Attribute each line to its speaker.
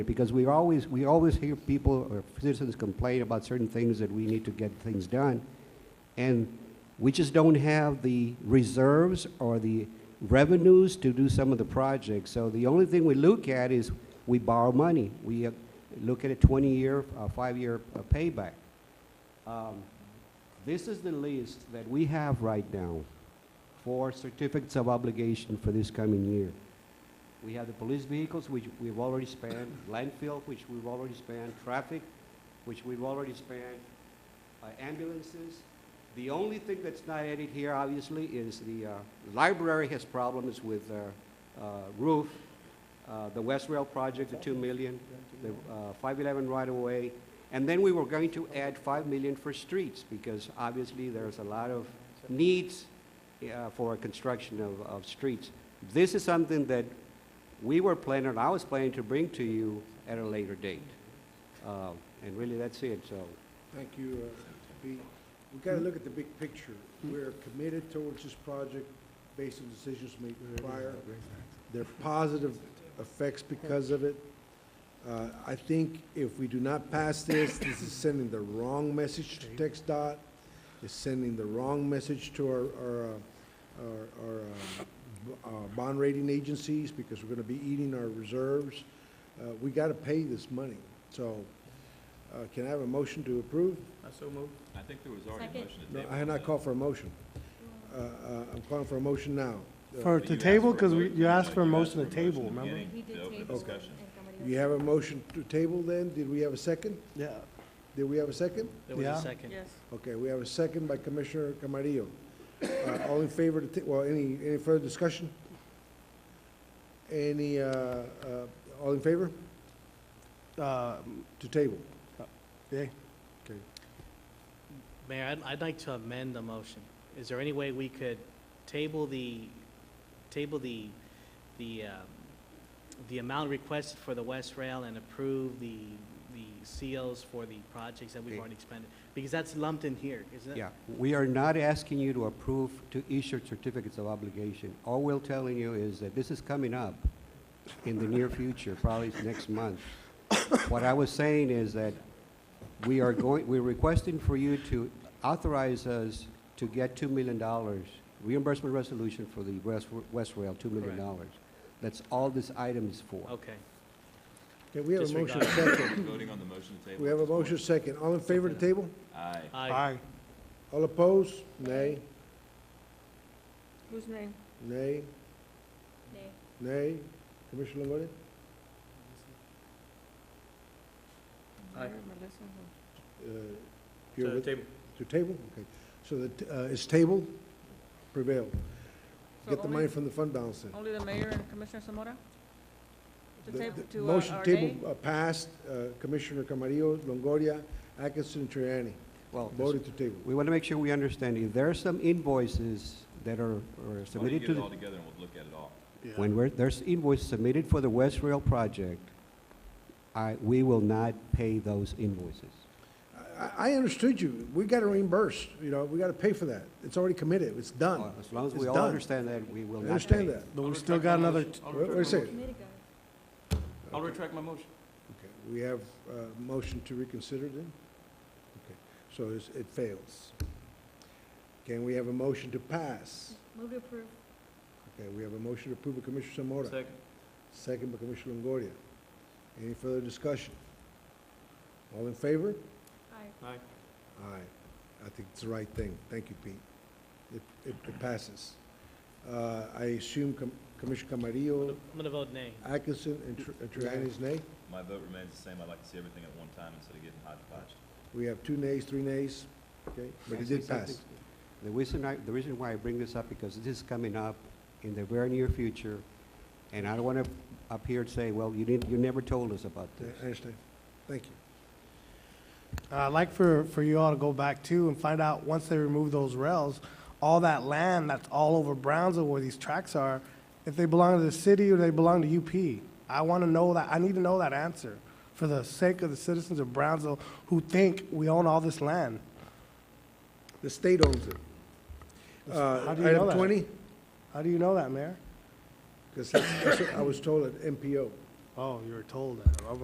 Speaker 1: Because we always, we always hear people or citizens complain about certain things that we need to get things done. And we just don't have the reserves or the revenues to do some of the projects. So the only thing we look at is we borrow money. We uh, look at a 20-year, uh, five-year uh, payback. Um, This is the list that we have right now for certificates of obligation for this coming year. We have the police vehicles, which we've already spent, landfill, which we've already spent, traffic, which we've already spent, uh, ambulances. The only thing that's not added here, obviously, is the uh, library has problems with their uh, roof, uh, the West Rail project, the 2 million, the uh, 511 right-of-way, and then we were going to add 5 million for streets, because obviously there's a lot of needs uh, for construction of, of streets. This is something that we were planning, and I was planning to bring to you at a later date. Uh, And really, that's it, so.
Speaker 2: Thank you, uh, Pete. We gotta look at the big picture. We're committed towards this project based on decisions made prior. There are positive effects because of it. Uh, I think if we do not pass this, this is sending the wrong message to Text Dot. It's sending the wrong message to our, our, uh, our, our, uh, b- uh, bond rating agencies because we're gonna be eating our reserves. Uh, we gotta pay this money. So, uh, can I have a motion to approve?
Speaker 3: I think there was already a
Speaker 4: Second.
Speaker 3: motion to
Speaker 2: No,
Speaker 3: table.
Speaker 2: I had not called for a motion. Uh, uh, I'm calling for a motion now. Uh,
Speaker 5: For
Speaker 3: But
Speaker 5: the
Speaker 3: you asked
Speaker 5: table,
Speaker 3: for a
Speaker 5: because we,
Speaker 3: vote.
Speaker 5: you asked for a
Speaker 3: You
Speaker 5: motion to table,
Speaker 3: motion
Speaker 5: remember?
Speaker 3: beginning
Speaker 4: We did
Speaker 3: to open
Speaker 4: table.
Speaker 3: discussion.
Speaker 4: And somebody
Speaker 2: You have
Speaker 4: else-
Speaker 2: a motion to table then? Did we have a second?
Speaker 5: Yeah.
Speaker 2: Did we have a second?
Speaker 6: There was
Speaker 5: Yeah.
Speaker 6: a second.
Speaker 2: Okay, we have a second by Commissioner Camarillo. Uh, All in favor to, ta- well, any, any further discussion? Any, uh, uh, all in favor
Speaker 5: Um,
Speaker 2: to table?
Speaker 5: Yeah,
Speaker 6: Mayor, I'd, I'd like to amend the motion. Is there any way we could table the, table the, the, um, the amount requested for the West Rail and approve the, the COs for the projects that we've
Speaker 1: Okay.
Speaker 6: already expended? Because that's lumped in here, isn't it?
Speaker 1: Yeah, we are not asking you to approve to issue certificates of obligation. All we're telling you is that this is coming up in the near future, probably it's next month. What I was saying is that we are going, we're requesting for you to authorize us to get $2 million reimbursement resolution for the West West Rail, $2 million. That's all this item is for.
Speaker 6: Okay.
Speaker 2: Okay, we have a motion
Speaker 6: Disregard.
Speaker 2: second.
Speaker 3: Voting on the motion to table.
Speaker 2: We
Speaker 3: at
Speaker 2: have a
Speaker 3: this point.
Speaker 2: motion second. All in favor to table?
Speaker 3: Aye.
Speaker 1: Uh,
Speaker 6: Aye.
Speaker 5: aye.
Speaker 2: All opposed? Nay,
Speaker 4: Whose name?
Speaker 2: nay,
Speaker 4: Nay.
Speaker 2: nay. Commissioner Longoria? Uh, you're with-
Speaker 6: table.
Speaker 2: To table, okay. So that, uh, it's tabled, prevail. Get the money from the fund balance then.
Speaker 7: Only the mayor and Commissioner Samora? To
Speaker 2: The-
Speaker 7: table,
Speaker 2: the
Speaker 7: to uh,
Speaker 2: Motion
Speaker 7: our day?
Speaker 2: table uh, passed, uh, Commissioner Camarillo, Longoria, Atkinson, Triani,
Speaker 1: Well,
Speaker 2: voted to table.
Speaker 1: we want to make sure we understand, if there are some invoices that are are
Speaker 3: Why don't you
Speaker 1: submitted
Speaker 3: get
Speaker 1: to
Speaker 3: it
Speaker 1: the
Speaker 3: all together and we'll look at it all.
Speaker 1: When we're, there's invoice submitted for the West Rail project, I, we will not pay those invoices.
Speaker 2: I, I understood you. We gotta reimburse, you know, we gotta pay for that. It's already committed, it's done.
Speaker 1: As long as we
Speaker 2: It's
Speaker 1: all
Speaker 2: done.
Speaker 1: understand that, we will
Speaker 2: I
Speaker 1: not pay.
Speaker 2: understand that.
Speaker 5: But we still got another, t-
Speaker 2: Wait wait a second.
Speaker 4: Committee guy.
Speaker 2: I'll
Speaker 3: retract my motion.
Speaker 2: Okay, we have a motion to reconsider then? Okay, so it's, it fails. Can we have a motion to pass?
Speaker 4: Move to approve.
Speaker 2: Okay, we have a motion to approve by Commissioner Samora. Second. Second by Commissioner Longoria. Any further discussion? All in favor?
Speaker 4: Aye.
Speaker 2: Aye. I think it's the right thing. Thank you, Pete. It, it- it passes. Uh, I assume Com- Commissioner Camarillo,
Speaker 6: I'm gonna vote nay.
Speaker 2: Atkinson, and Tr- and Triani's nay?
Speaker 3: My vote remains the same. I'd like to see everything at one time instead of getting hodgepodge.
Speaker 2: We have two nays, three nays, okay?
Speaker 1: Can
Speaker 2: But
Speaker 1: I
Speaker 2: it
Speaker 1: say
Speaker 2: did pass.
Speaker 1: something? The reason I, the reason why I bring this up, because this is coming up in the very near future, and I don't want to up here and say, well, you didn't, you never told us about
Speaker 2: Yeah,
Speaker 1: this.
Speaker 2: I understand. Thank you.
Speaker 5: uh, I'd like for, for you all to go back too and find out, once they remove those rails, all that land that's all over Brownsville where these tracks are, if they belong to the city or they belong to UP. I want to know that, I need to know that answer for the sake of the citizens of Brownsville who think we own all this land.
Speaker 2: The state owns it. Uh,
Speaker 5: How do you know
Speaker 2: Item
Speaker 5: that?
Speaker 2: twenty,
Speaker 5: How do you know that, Mayor?
Speaker 2: because I was told at MPO.
Speaker 5: Oh, you were told that.